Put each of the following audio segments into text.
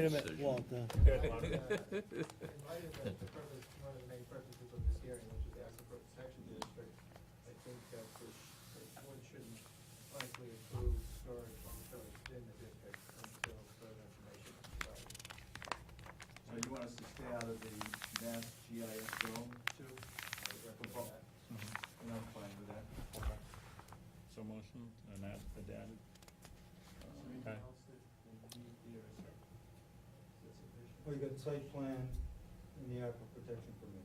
Wait a minute, Walt, uh, In light of the purpose, one of the main purposes of this hearing, which is the aquifer protection district, I think that this, this board shouldn't likely approve storage, long storage in the district until further information is provided. So you want us to stay out of the Mass GIS zone too? I would recommend that. And I'm fine with that. Mm-hmm. So motion, uh, and that, the data? Is there anything Okay. else that we need here? Is that- is that sufficient? Well, you got site plan and the aquifer protection permit.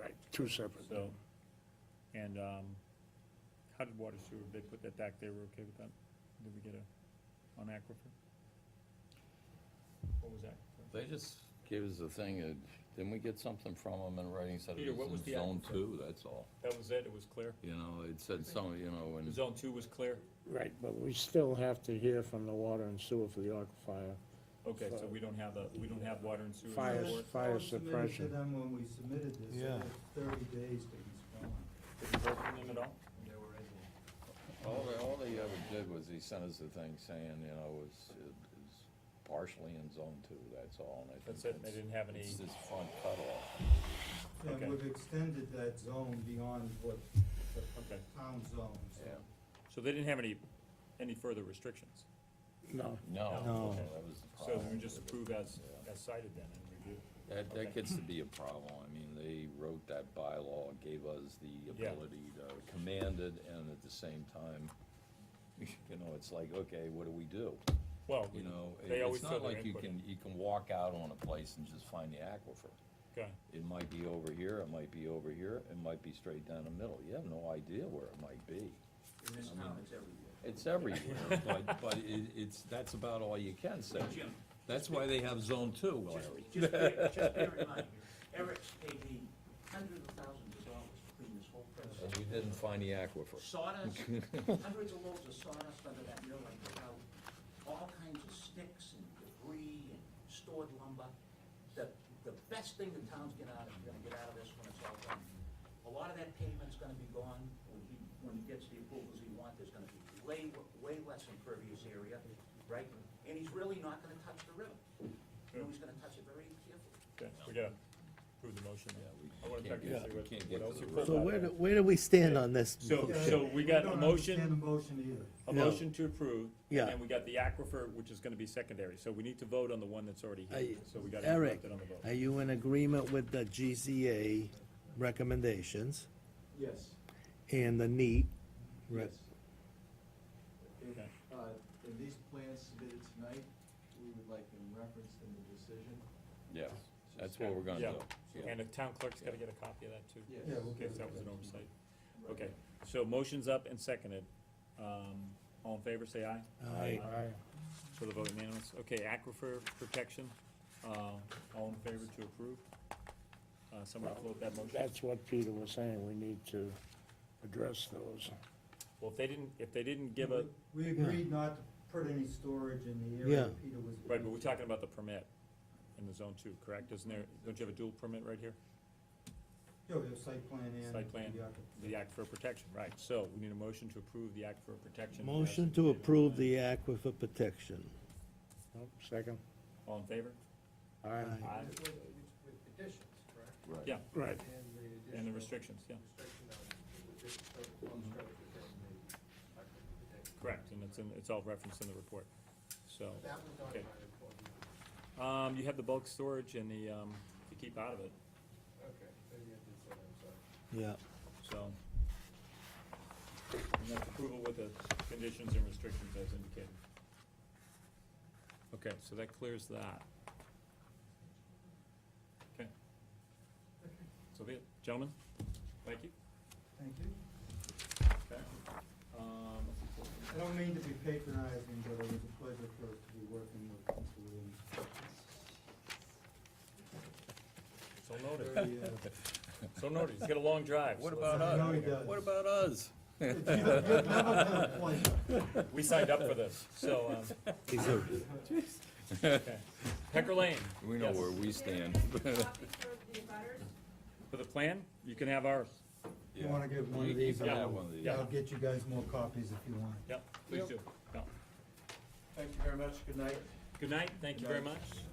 Right, two separate. So, and, um, how did water sewer, they put that back, they were okay with that? Did we get a, on aquifer? What was that? They just gave us a thing, uh, didn't we get something from them in writing, said it Peter, what was was the in zone aquifer? two, that's all. That was it, it was clear? You know, it said some, you know, and, Zone two was clear? Right, but we still have to hear from the water and sewer for the aquifer, Okay, so we don't have a, we don't have water and sewer in Fire- the board? fire Well, submitted to suppression. them when we submitted this, Yeah. it was thirty days to Did respond. you hear from them at all? And They were able. all they, all they ever did was he sent us a thing saying, you know, it's, it's partially in zone two, that's all, and I That's think it, they didn't have any, It's this front cutoff. Okay. And we've extended that zone beyond what the Okay. town zone, so. Yeah. so they didn't have any, any further restrictions? no. No, No. okay, that was the So problem. we just approve as, Yeah. as cited then and review? That, Okay. that gets to be a problem. I mean, they wrote that bylaw, gave us the Yeah. ability to command it, and at the same time, you know, it's like, okay, what do we do? Well, You know, it- They always it's throw not their like you input in. can, you can walk out on a place and just find the aquifer. okay, It might be over here, it might be over here, it might be straight down the middle. You have no idea where it might be. In this town, it's everywhere. It's everywhere, but, but it, it's, that's about all you can say. Jim. That's why they have zone two, Just, Larry. just bear, just bear in mind, Eric's paid me hundreds of thousands of dollars to clean this whole process. And we didn't find the aquifer. Sawdust, hundreds of loads of sawdust under that mill, I took out all kinds of sticks and debris and stored lumber. The, the best thing the town's gonna, gonna get out of this when it's all done, a lot of that pavement's gonna be gone. When he, when he gets the approvals he wants, there's gonna be way, way less impervious area, right? And he's really not gonna touch the river. You know, he's gonna touch it very carefully. okay, we gotta approve the motion. Yeah, we I wanna check can't and get- see we what- can't what get to else the you root. put so out where, there. do- where do we stand on this? So, Yeah, so we got a don't motion, understand the motion either. a No. motion to approve, Yeah. and then we got the aquifer, which is gonna be secondary, so we need to vote on the one that's already here, I- so we gotta Eric, interrupt it on the vote. are you in agreement with the GZA recommendations Yes. and the NEAT? Right. Yes. If, Okay. uh, if these plans submitted tonight, we would like them referenced in the decision. Yes, that's what we're gonna Yeah. do. And the town clerk's gotta get a copy of that too, Yes. Yeah, we'll in get case that was an oversight. Right. Okay, so motion's up and seconded, um, all in favor, say aye. Aye. So the vote unanimous, okay, aquifer protection, uh, all in favor to approve? Uh, someone float that motion, That's what Peter was saying, we need to address those. well, if they didn't, if they didn't give a, We agreed not to put any storage in the area Yeah. Peter was. right, but we're talking about the permit in the zone two, correct, isn't there, don't you have a dual permit right here? Yeah, we have site plan and. Site plan. the aquifer. The Act for Protection, right, so we need a motion to approve the Act for Protection. Motion to approve the aquifer protection. Nope, Second? All in favor? Aye. Aye. With, with- with conditions, correct? Right. Yeah, Right, And the additional. and the restrictions, yeah, Restriction on the district storage, long storage within the aquifer protection. correct, and it's in, it's all referenced in the report, so. That was on Okay. my report. Um, you have the bulk storage and the, um, to keep out of it, Okay, so you did say, I'm sorry. Yeah. so. And that's approval with the conditions and restrictions as indicated. Okay, so that clears that. Okay. So be it, gentlemen, thank you. Thank you. Okay. Um, I don't mean to be patronizing, but it was a pleasure for us to be working with Mr. Williams. So noted, Very, uh, so noted, he's got a long drive. What so about let's- No, he does. us? What about us? You've never been a pleasure. We signed up for this, so, um, okay. Pecker Lane. We know yes. where we stand. For the plan, you can have ours, You wanna give one of You these? can Yeah. have one of these. I'll get you guys more copies if you want. yep, please do, Yeah. Thank you very much, good night. Good night, thank you very much.